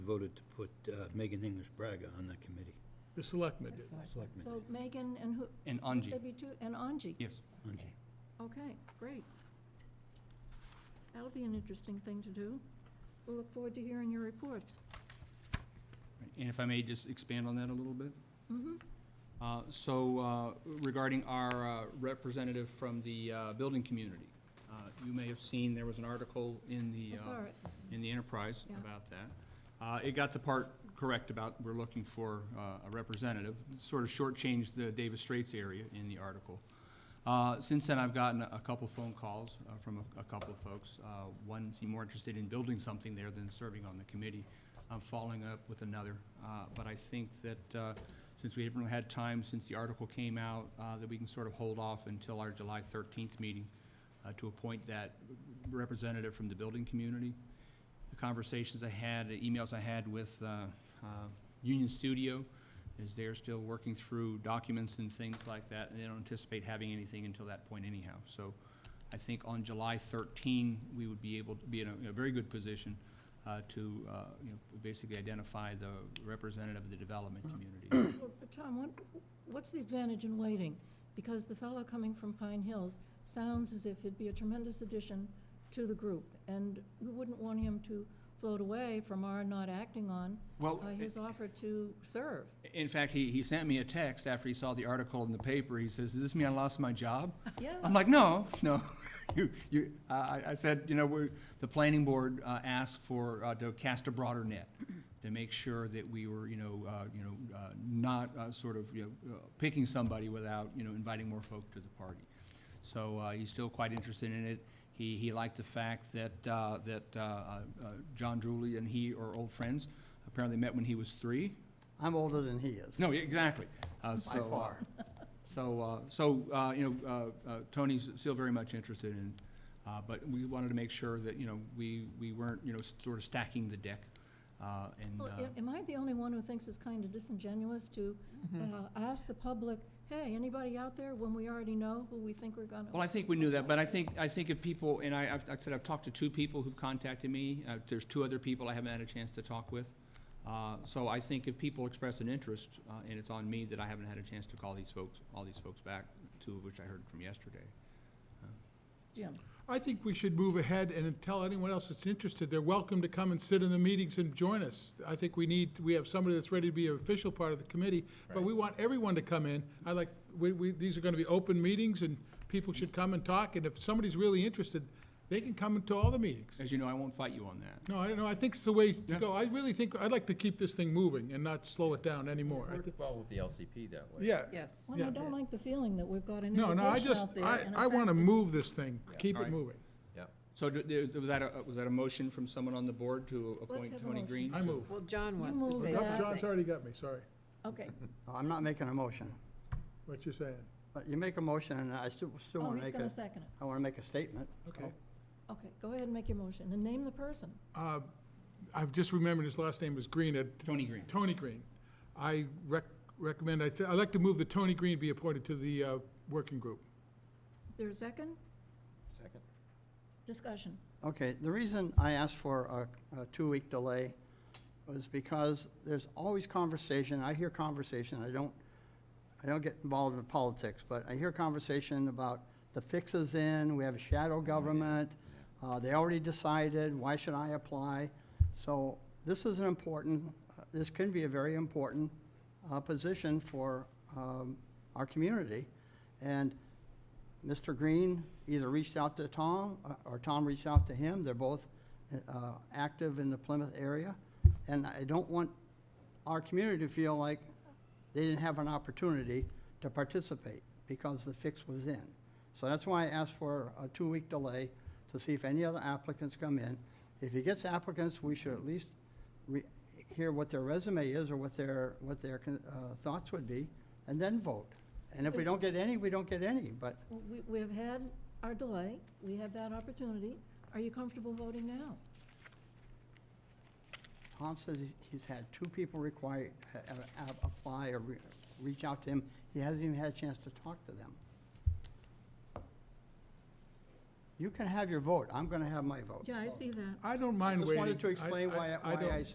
voted to put uh, Megan English Braga on that committee. The selectmen did. Selectmen. So Megan and who, And they Anji, be two, and Anji? yes. Angie. Okay, great. That'll be an interesting thing to do. We'll look forward to hearing your reports. And if I may just expand on that a little bit? Mm-hmm. Uh, So uh, regarding our uh, representative from the uh, building community, uh, you may have seen, there was an article in I the, uh, saw it. in the Enterprise Yeah. about that. Uh, It got the part correct about we're looking for uh, a representative, sort of shortchanged the Davis Straits area in the article. Uh, Since then, I've gotten a couple phone calls uh, from a- a couple of folks. Uh, One seemed more interested in building something there than serving on the committee. I'm following up with another, Uh, but I think that uh, since we haven't really had time since the article came out, uh, that we can sort of hold off until our July 13th meeting uh, to appoint that representative from the building community the conversations I had, the emails I had with uh, uh, Union Studio, is they're still working through documents and things like that, and they don't anticipate having anything until that point anyhow. So I think on July 13, we would be able to be in a- in a very good position uh, to, uh, you know, basically identify the representative of the development community. Well, Tom, what, what's the advantage in waiting? Because the fellow coming from Pine Hills sounds as if he'd be a tremendous addition to the group, and we wouldn't want him to float away from our not acting on Well, uh, his offer to serve. in fact, he he sent me a text after he saw the article in the paper. He says, does this mean I lost my job? Yeah. I'm like, no, no. You, you, I, I- I said, you know, we're, the planning board, uh, asked for, uh, to cast a broader net to make sure that we were, you know, uh, you know, uh, not, uh, sort of, you know, uh, picking somebody without, you know, inviting more folk to the party. So, uh, he's still quite interested in it. He, he liked the fact that, uh, that, uh, uh, John Drewley and he are old friends. Apparently met when he was three. I'm older than he is. No, yeah, exactly. By far. So, uh, so, uh, you know, uh, uh, Tony's still very much interested in, uh, but we wanted to make sure that, you know, we, we weren't, you know, s- sort of stacking the deck, uh, and, Well, uh, a- am I the only one who thinks it's kind of disingenuous to Mm-hmm. uh, ask the public, hey, anybody out there, when we already know who we think we're gonna? well, I think we knew that, but I think, I think if people, and I, I've, like I said, I've talked to two people who've contacted me, uh, there's two other people I haven't had a chance to talk with. Uh, so I think if people express an interest, uh, and it's on me that I haven't had a chance to call these folks, all these folks back, two of which I heard from yesterday. Jim, I think we should move ahead and tell anyone else that's interested, they're welcome to come and sit in the meetings and join us. I think we need, we have somebody that's ready to be an official part of the committee, but we want everyone to come in. I like, we, we, these are gonna be open meetings and people should come and talk, and if somebody's really interested, they can come to all the meetings. As you know, I won't fight you on that. No, I don't know, I think it's the way to go. I really think, I'd like to keep this thing moving and not slow it down anymore. I thi- Well, with the LCP that way. Yeah, Yes. well, I Yeah. don't like the feeling that we've got an no, invitation no, I just, out there. I, and in I wanna fact- move this thing, Yeah. keep All it right. moved. So do- is- was that, a was that a motion from someone on the board to appoint have a Tony motion. Green? I to- move. Well, John You wants to moved say it. No, Yeah. John's something. already got me, sorry, Okay, No, I'm not making a motion. what you're saying. But you make a motion, and I still, still oh, want to he's make gonna a, second it. I want to make a statement. Okay. Okay, go ahead and make your motion, and name the person. Uh, I've just remembered his last name was Green, uh, Tony Green. Tony Green. I rec- recommend, I thi- I'd like to move that Tony Green be appointed to the uh, working group. There's a second? Second. Discussion. Okay, the reason I asked for a, a two-week delay was because there's always conversation, I hear conversation, I don't, I don't get involved in politics, but I hear conversation about the fix is in, we have a shadow government, uh, they already decided, why should I apply? So this is an important, uh, this can be a very important, uh, position for, um, our community. And Mr. Green either reached out to Tom, uh, or Tom reached out to him. They're both uh, active in the Plymouth area. And I don't want our community to feel like they didn't have an opportunity to participate because the fix was in. So that's why I asked for a two-week delay to see if any other applicants come in. If he gets applicants, we should at least re- hear what their resume is or what their, what their con- uh, thoughts would be, and then vote. And if we don't get any, we don't get any, but Well, We, we have had our delay, we have that opportunity. Are you comfortable voting now? Tom says he's- he's had two people require, uh, uh, uh, apply or re- reach out to him. He hasn't even had a chance to talk to them. You can have your vote. I'm going to have my vote. Yeah, I see that. I don't mind Just waiting. wanted to explain why I- why don't- I